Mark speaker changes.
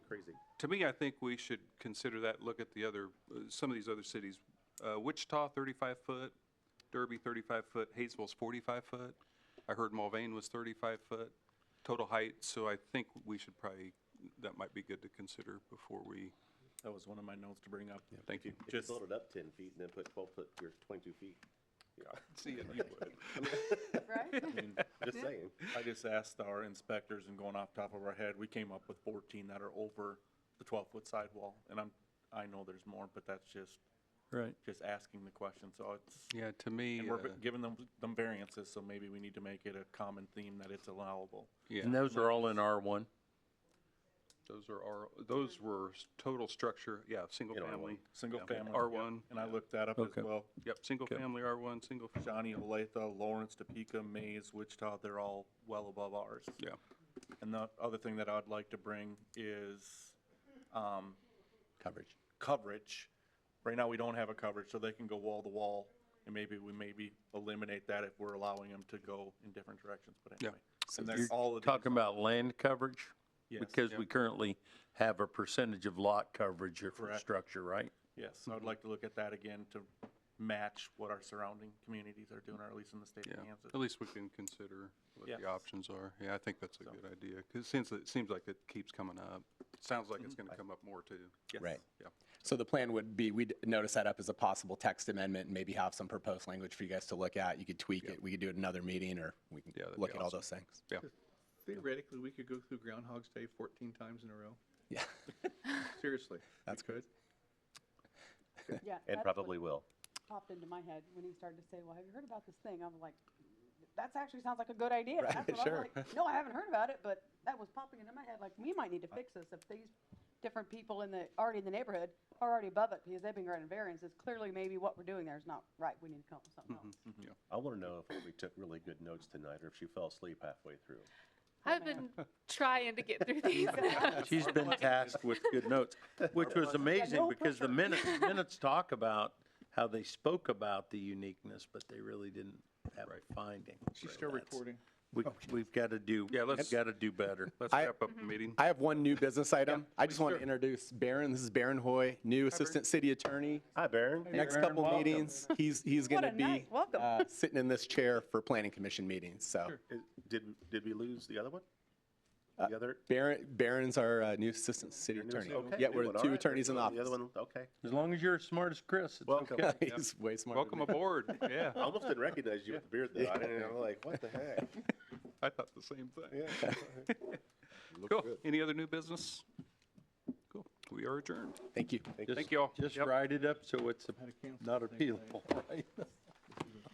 Speaker 1: crazy.
Speaker 2: To me, I think we should consider that, look at the other, uh, some of these other cities. Uh, Wichita, 35-foot, Derby, 35-foot, Hayesville's 45-foot. I heard Mulvane was 35-foot total height, so I think we should probably, that might be good to consider before we,
Speaker 3: That was one of my notes to bring up.
Speaker 2: thank you.
Speaker 1: If you
Speaker 3: Just-
Speaker 1: build it up ten feet and then put twelve foot, you're twenty-two feet.
Speaker 2: See, and you would.
Speaker 4: Right?
Speaker 3: I mean,
Speaker 1: Just saying.
Speaker 3: I just asked our inspectors and going off top of our head, we came up with fourteen that are over the twelve-foot sidewall. And I'm, I know there's more, but that's just,
Speaker 5: Right.
Speaker 3: just asking the question, so it's,
Speaker 2: Yeah, to me,
Speaker 3: and we're
Speaker 2: uh,
Speaker 3: giving them, them variances, so maybe we need to make it a common theme that it's allowable.
Speaker 2: yeah,
Speaker 5: And those are all in R1?
Speaker 2: those are our, those were s- total structure, yeah, single
Speaker 1: In R1.
Speaker 2: family.
Speaker 3: Single
Speaker 2: Yeah.
Speaker 3: family.
Speaker 2: R1.
Speaker 3: And I looked that up as
Speaker 5: Okay.
Speaker 3: well.
Speaker 2: Yep, single family R1, single, fa-
Speaker 3: Johnny, Olathe, Lawrence, Topeka, Mays, Wichita, they're all well above ours.
Speaker 2: yeah.
Speaker 3: And the other thing that I'd like to bring is, um,
Speaker 5: Coverage.
Speaker 3: coverage. Right now, we don't have a coverage, so they can go wall to wall, and maybe we maybe eliminate that if we're allowing them to go in different directions, but
Speaker 2: Yeah.
Speaker 3: anyway. And they're all of these-
Speaker 5: Talking about land coverage?
Speaker 3: Yes.
Speaker 5: Because we currently have a percentage of lot coverage or for
Speaker 3: Correct.
Speaker 5: structure, right?
Speaker 3: Yes, so I'd like to look at that again to match what our surrounding communities are doing, or at least in the state of
Speaker 2: Yeah,
Speaker 3: Kansas.
Speaker 2: at least we can consider what the
Speaker 3: Yeah.
Speaker 2: options are. Yeah, I think that's a good idea, because since it seems like it keeps coming up, sounds like it's gonna come up more too.
Speaker 3: Yes.
Speaker 6: Right.
Speaker 2: Mm-hmm. Yeah.
Speaker 6: So the plan would be, we'd notice that up as a possible text amendment and maybe have some proposed language for you guys to look at. You could tweak it. We could do it another meeting or we can
Speaker 2: Yeah, that'd
Speaker 6: look
Speaker 2: be
Speaker 6: at all
Speaker 2: awesome.
Speaker 6: those things.
Speaker 2: Yeah,
Speaker 7: Theoretically, we could go through Groundhog's Day 14 times in a row.
Speaker 6: Yeah.
Speaker 7: Seriously. That's good.
Speaker 4: Yeah. that's
Speaker 1: And
Speaker 4: what
Speaker 1: probably will.
Speaker 4: Popped into my head when he started to say, well, have you heard about this thing? I'm like, that's actually sounds like a good idea. That's
Speaker 6: Right,
Speaker 4: what I'm
Speaker 6: sure.
Speaker 4: like, No, I haven't heard about it, but that was popping into my head, like, we might need to fix this if these different people in the, already in the neighborhood are already above it because they've been granted variances. Clearly, maybe what we're doing there is not right. We need to come up with something else.
Speaker 1: I want to know if we took really good notes tonight or if she fell asleep halfway through.
Speaker 8: I've been trying to get through these.
Speaker 5: She's been tasked with good notes, which was amazing
Speaker 4: no
Speaker 5: because the minutes, minutes talk about how they spoke about the uniqueness, but they really didn't have a finding.
Speaker 7: She's
Speaker 5: So
Speaker 7: still
Speaker 5: that's-
Speaker 7: recording.
Speaker 5: We, we've got to do,
Speaker 2: Yeah,
Speaker 5: we've
Speaker 2: let's-
Speaker 5: got to do better.
Speaker 2: let's
Speaker 6: I- Mm-hmm.
Speaker 2: wrap up the meeting.
Speaker 6: I have one new business item. I just want to introduce Barron. This is Barron Hoy, new Assistant City Attorney.
Speaker 1: Hi, Baron.
Speaker 6: Next
Speaker 5: Barron,
Speaker 6: couple
Speaker 5: welcome.
Speaker 6: meetings, he's, he's
Speaker 4: What
Speaker 6: going to
Speaker 4: a night.
Speaker 6: be
Speaker 4: Welcome.
Speaker 6: uh, sitting in this chair for planning commission meetings, so.
Speaker 1: Did, did we lose the other one? The other?
Speaker 6: Barron, Barron's our uh, new Assistant City
Speaker 1: your new
Speaker 6: Attorney.
Speaker 1: assistant?
Speaker 6: Yeah,
Speaker 1: New
Speaker 6: we're
Speaker 1: one,
Speaker 6: the
Speaker 1: all
Speaker 6: two
Speaker 1: right.
Speaker 6: attorneys in the
Speaker 1: The
Speaker 6: office.
Speaker 1: other one, okay.
Speaker 5: As long as you're as smart as Chris, it's
Speaker 1: Welcome.
Speaker 5: okay.
Speaker 6: He's way smarter. than
Speaker 2: Welcome
Speaker 6: me.
Speaker 2: aboard, yeah.
Speaker 1: I almost didn't recognize you with the beard though. I didn't, I'm like, what the heck?
Speaker 2: I thought the same thing.
Speaker 1: Yeah.
Speaker 2: Cool, any other new business? Cool, we are adjourned.
Speaker 6: Thank you.
Speaker 2: Thank you all.
Speaker 5: Just
Speaker 2: Yep.
Speaker 5: write it up so it's
Speaker 7: Had to cancel
Speaker 5: not
Speaker 7: the thing today.
Speaker 5: appealable, right?